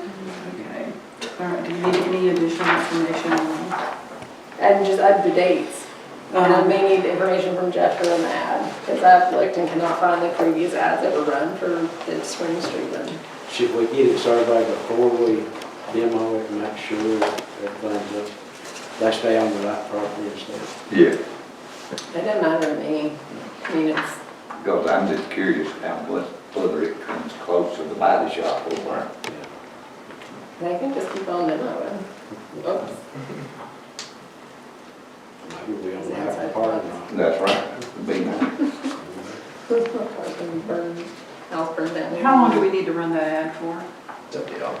Okay, all right, do you need any additional information on that? And just add the dates. And Uh-huh. I may need information from Jeff for an ad, because I've looked and cannot find the previous ads that were run for the Spring Street one. Should we get it surveyed before we demo it and make sure that everything's up? They stay on the right property and stuff. Yeah, It doesn't matter to me. I mean, it's, because I'm just curious how much further it comes close to the body shop over they can just keep on demoing. Oops. Maybe we only have a part of there. That's right. Be nice. Burn- House burned down. How long do we need to run that ad for? It's up to y'all.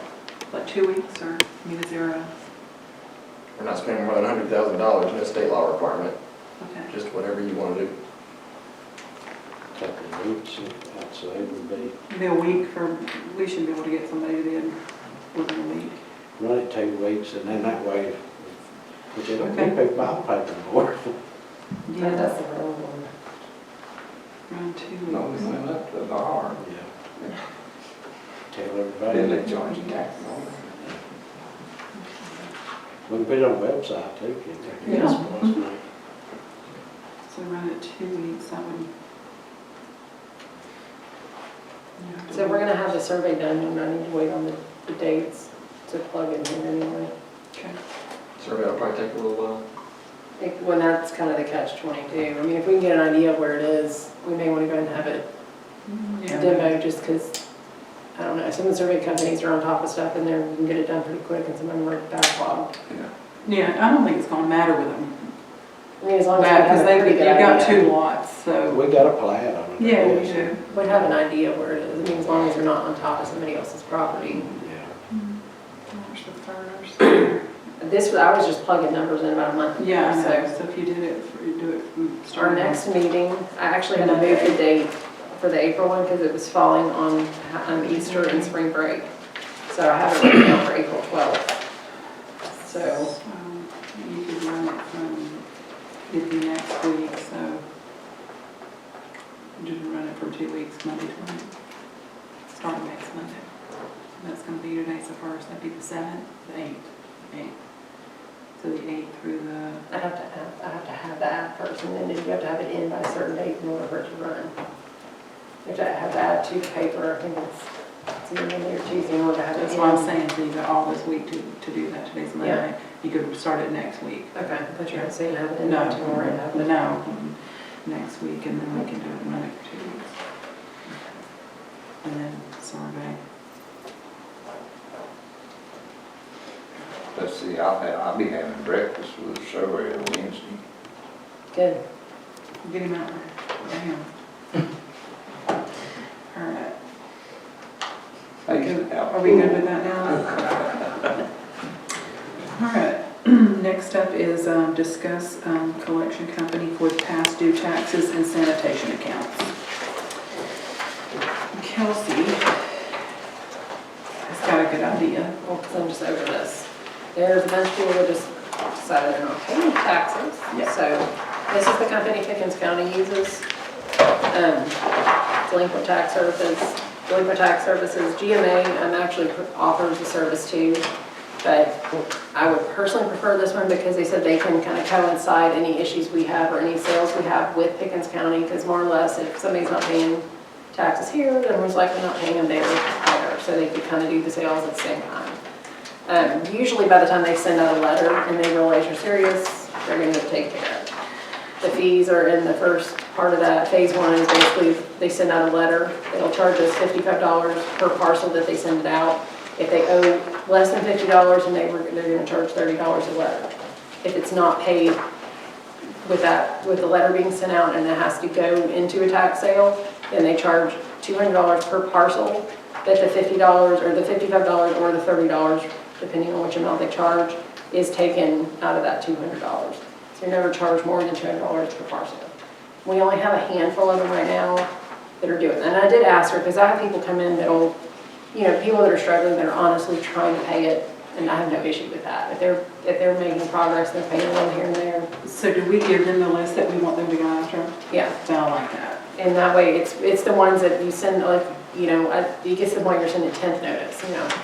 Like two weeks or, I mean, is there a, We're not spending more than hundred thousand dollars, no state law requirement, okay. just whatever you wanna do. a couple of weeks, I'd say it would be, Maybe a week for, we should be able to get somebody then within a week. run it two weeks and then that way, which I don't think Okay. people buy paper more. Yeah, that's the real one. Around two No, we weeks. went up to the R, Yeah. Tell then everybody, they charge the tax on it. we can put it on website too, can't we? Yeah. Yes, boys, mate. So run it two weeks, I would. Yeah. So we're gonna have the survey done, and I need to wait on the, the dates to plug in here anyway. Okay. Survey will probably take a little while. Like, When that's kind of the catch twenty-two. I mean, if we can get an idea of where it is, we may wanna go ahead and have it Yeah. demo, just because, I don't know, some of the survey companies are on top of stuff, and they're, we can get it done pretty quick, and some of them are backlogged. Yeah, I don't think it's gonna matter with them. I mean, as long as we have Because a they, pretty you've good got idea. two lots, so. We got a plan on it. Yeah, we yes. do. We'd have an idea where it is, I mean, as long as we're not on top of somebody else's property. Yeah. March the first. This, was- I was just plugging numbers in about a month ago, Yeah, I so. know, so if you did it, for- you do it from Our start next. next meeting, I actually had to move the date for the April one because it was falling on um, Easter and spring break. So I have it written down for April 12th. So, So um, You could run it from, it'd be next week, so. Just run it for two weeks, Monday to Monday. Start next Monday. So That's gonna be today's the first, that'd be the seventh, the eighth, eighth. So the eighth through the, I have to have, I have to have that first and then you have to have it in by a certain date in order for it to run. You have to have that to paper, I think it's, it's either Monday or Tuesday in order to have it in. that's what I'm saying, so you got all this week to, to do that, today's Monday. Yeah. You could start it next week. Okay, I thought you were saying have it in by No, tomorrow. and have it- no, next week, and then we can do it Monday for two weeks. And then survey. Let's see, I'll, have- I'll be having breakfast with the surveyor Wednesday. Good. Get him out there. Damn. All right. I used to have Are we good with that now? All right. Next up is um, discuss um, collection company for past due taxes and sanitation accounts. Kelsey has got a good idea. Well, 'cause I'm just over this. There's a bunch of people that just decided they're not paying taxes. Yeah. So this is the company Pickens County uses. um, Delinquent Tax Services, Delinquent Tax Services, GMA, um, actually offers the service too. But I would personally prefer this one because they said they can kind of coincide any issues we have or any sales we have with Pickens County. Because more or less, if somebody's not paying taxes here, then we're likely not paying them there either. So they could kind of do the sales at the same time. Um, Usually by the time they send out a letter and they realize you're serious, they're going to take care of it. The fees are in the first part of that. Phase one is basically, they send out a letter. It'll charge us fifty-five dollars per parcel that they send it out. If they owe less than fifty dollars, and they were, they're gonna charge thirty dollars a letter. If it's not paid with that, with the letter being sent out and it has to go into a tax sale, then they charge two hundred dollars per parcel, that the fifty dollars, or the fifty-five dollars, or the thirty dollars, depending on which amount they charge, is taken out of that two hundred dollars. So you're never charged more than two hundred dollars per parcel. We only have a handful of them right now that are doing, that. and I did ask her, because I have people come in that'll, you know, people that are struggling, that are honestly trying to pay it, and I have no issue with that. If they're, if they're making progress, they're paying a little here and there, So do we give them the list that we want them to go after? yeah. Sound like that. And that way, it's, it's the ones that you send, like, you know, I- it gets to the point you're sending tenth notice, you know.